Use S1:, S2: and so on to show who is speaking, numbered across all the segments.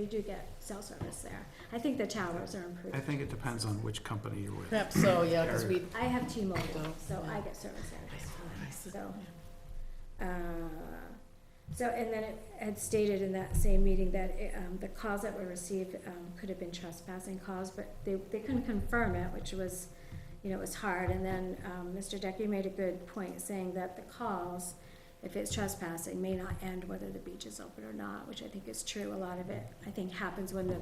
S1: You do get cell service there. I think the towers are improved.
S2: I think it depends on which company you're with.
S3: Perhaps so, yeah, because we,
S1: I have T-Mobile,
S3: Oh,
S1: so I
S3: yeah.
S1: get service there,
S3: Nice.
S1: so. uh, So, and then it had stated in that same meeting that it, um, the calls that were received um, could have been trespassing calls, but they, they couldn't confirm it, which was, you know, it was hard. And then um, Mr. Decker made a good point saying that the calls, if it's trespassing, may not end whether the beach is open or not, which I think is true. A lot of it, I think, happens when the,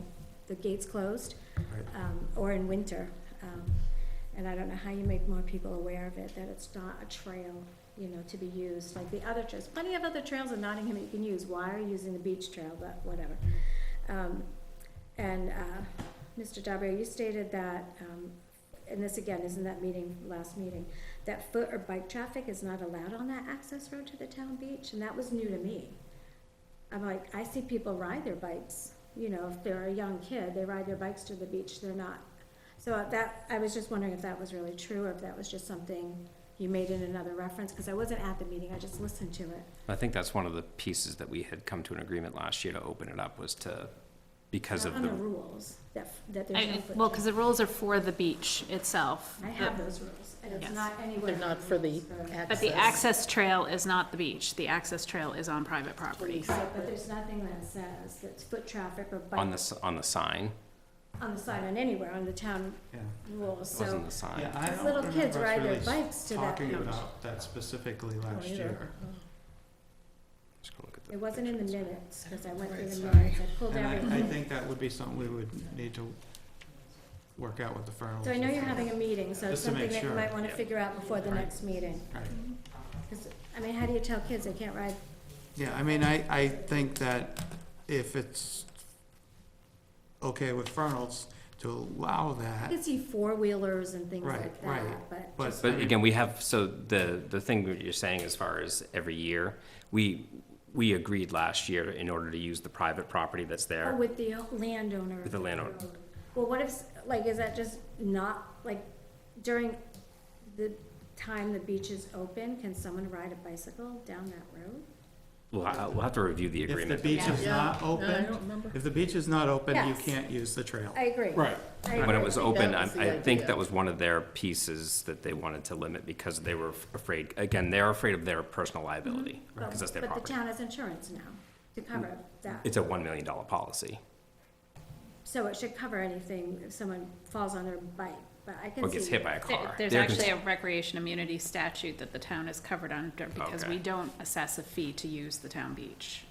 S1: the gate's closed
S2: Right.
S1: um, or in winter. Um, and I don't know how you make more people aware of it, that it's not a trail, you know, to be used, like the other trails. Plenty of other trails in Nottingham that you can use, why are you using the beach trail, but whatever. Um, and, uh, Mr. Dabrio, you stated that, um, and this again is in that meeting, last meeting, that foot or bike traffic is not allowed on that access road to the town beach, and that was new to me. I'm like, I see people ride their bikes, you know, if they're a young kid, they ride their bikes to the beach, they're not. So that, I was just wondering if that was really true, or if that was just something you made in another reference, because I wasn't at the meeting, I just listened to it.
S4: I think that's one of the pieces that we had come to an agreement last year to open it up was to, because of
S1: On the
S4: the,
S1: rules, that, that
S5: I-
S1: there's no
S5: I-
S1: foot.
S5: Well, because the rules are for the beach itself.
S1: I have those rules, and it's
S5: Yes.
S1: not anywhere.
S3: They're not
S1: in
S3: for the
S1: rules for-
S3: access.
S5: But the access trail is not the beach. The access trail is on private
S3: Totally
S5: property.
S1: But
S3: separate.
S1: there's nothing that says that's foot traffic or
S4: on
S1: bike,
S4: the, s- on the sign.
S1: on the side, on anywhere, on the town
S2: Yeah.
S1: rules,
S4: It
S1: so.
S4: wasn't
S2: Yeah,
S4: the sign.
S2: I
S1: Because
S2: don't
S1: little
S2: remember
S1: kids
S2: us
S1: ride their
S2: really
S1: bikes to that
S2: talking
S1: beach.
S2: about that specifically last
S3: either.
S2: year.
S4: Just gonna look at the
S1: It wasn't in the
S4: pictures.
S1: minutes, because I went through
S3: Right,
S1: the
S3: sorry.
S1: minutes, I pulled
S2: And I, I
S1: everything.
S2: think that would be something we would need to work out with the Fernals.
S1: So I know you're having a meeting, so it's
S2: Just to
S1: something
S2: make
S1: that you
S2: sure.
S1: might wanna
S4: Yeah.
S1: figure out before the
S2: Right.
S1: next meeting.
S2: Right.
S1: Because, I mean, how do you tell kids they can't ride?
S2: Yeah, I mean, I, I think that if it's okay with Fernals to allow
S1: I
S2: that,
S1: can see four-wheelers and things
S2: Right,
S1: like
S2: right.
S1: that, but
S2: but. I
S4: But
S2: mean,
S4: again, we have, so the, the thing that you're saying as far as every year, we, we agreed last year in order to use the private property that's
S1: or
S4: there.
S1: Oh, with the landowner.
S4: With the landowner.
S1: Well, what if, like, is that just not, like, during the time the beach is open, can someone ride a bicycle down that road?
S4: We'll, ha- we'll have to review the
S2: If the
S4: agreement.
S2: beach is
S3: Yeah.
S2: not
S3: No, I don't
S2: open,
S3: remember.
S2: if the beach is not open, you
S1: Yes.
S2: can't use the trail.
S1: I agree.
S2: Right.
S1: I
S4: When it
S1: agree.
S4: was
S3: I think that
S4: open, I,
S3: was the
S4: I think
S3: idea.
S4: that was one of their pieces that they wanted to limit because they were afraid, again, they're afraid of their personal liability,
S1: But-
S4: because that's their
S1: Mm-hmm. But the
S4: property. Mm.
S1: town has insurance now to cover that.
S4: It's a one million dollar policy.
S1: So it should cover anything if someone falls on their bike, but I can see.
S4: or gets hit by a
S5: There-
S4: car.
S5: There's
S4: They're cons-
S5: actually a recreation immunity statute that the town is covered under because
S4: Okay.
S5: we don't assess a fee to use the town beach.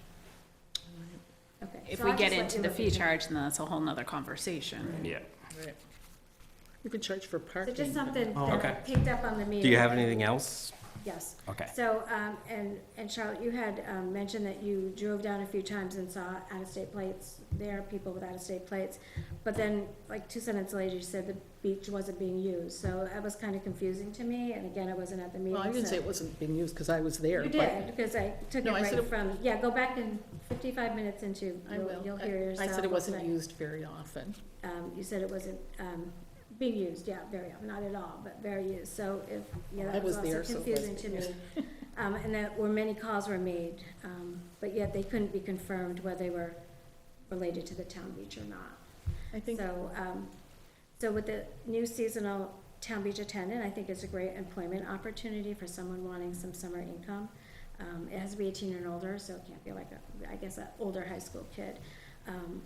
S1: Okay,
S5: If
S1: so
S5: we
S1: I'll
S5: get
S1: just let
S5: into
S1: you
S5: the
S1: look at
S5: fee
S1: that.
S5: charge, then that's a whole nother conversation.
S4: Yeah.
S3: Oh, Right. You can charge for
S1: So
S3: parking.
S1: just something
S2: Oh,
S1: that I
S4: okay.
S1: picked up on the meeting.
S4: Do you have anything else?
S1: Yes.
S4: Okay.
S1: So, um, and, and Charlotte, you had, um, mentioned that you drove down a few times and saw out-of-state plates, there are people with out-of-state plates. But then, like, two sentences later, you said the beach wasn't being used, so that was kinda confusing to me, and again, I wasn't at the meeting,
S3: Well, I didn't
S1: so-
S3: say it wasn't being used because I was there.
S1: You
S3: but
S1: did, because I took it
S3: No, I said
S1: right
S3: it-
S1: from, yeah, go back in fifty-five minutes into,
S3: I
S1: you'll,
S3: will.
S1: you'll
S3: I-
S1: hear yourself.
S3: I said it wasn't
S1: but,
S3: used very often.
S1: Um, you said it wasn't, um, being used, yeah, very, not at all, but very used, so if, yeah,
S3: I
S1: that was
S3: was
S1: also
S3: there, so it
S1: confusing to
S3: wasn't
S1: me. Um, and that, where many calls were made, um, but yet they couldn't be confirmed whether they were related to the town beach or not.
S3: I think,
S1: So, um, so with the new seasonal town beach attendant, I think it's a great employment opportunity for someone wanting some summer income. Um, it has to be eighteen and older, so it can't be like a, I guess, an older high school kid. Um,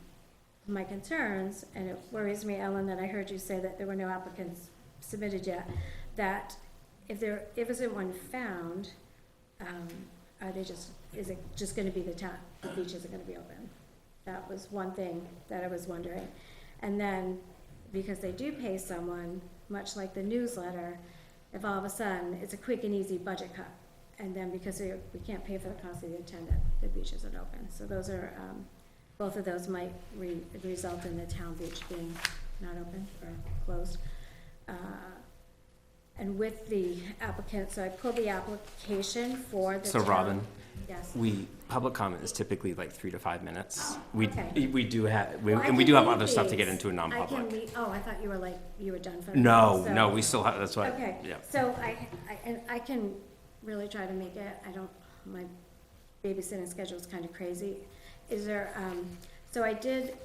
S1: my concerns, and it worries me, Ellen, that I heard you say that there were no applicants submitted yet, that if there, if isn't one found, um, are they just, is it just gonna be the town, the beach isn't gonna be open? That was one thing that I was wondering. And then, because they do pay someone, much like the newsletter, if all of a sudden, it's a quick and easy budget cut. And then because we, we can't pay for the cost of the attendant, the beach isn't open. So those are, um, both of those might re, result in the town beach being not open or closed. Uh, And with the applicant, so I pulled the application for the
S4: So
S1: town-
S4: Robin,
S1: Yes.
S4: we, public comment is typically like three to five minutes. We,
S1: Okay.
S4: we do have, we-
S1: Well, I
S4: and we
S1: can
S4: do have
S1: leave
S4: other stuff to get
S1: these.
S4: into in
S1: I can
S4: non-public.
S1: leave- Oh, I thought you were like, you were done for. the
S4: No,
S1: day, so-
S4: no, we still have, that's what,
S1: Okay,
S4: yeah.
S1: so I, I, and I can really try to make it, I don't, my babysitting schedule is kind of crazy. Is there, um, So I did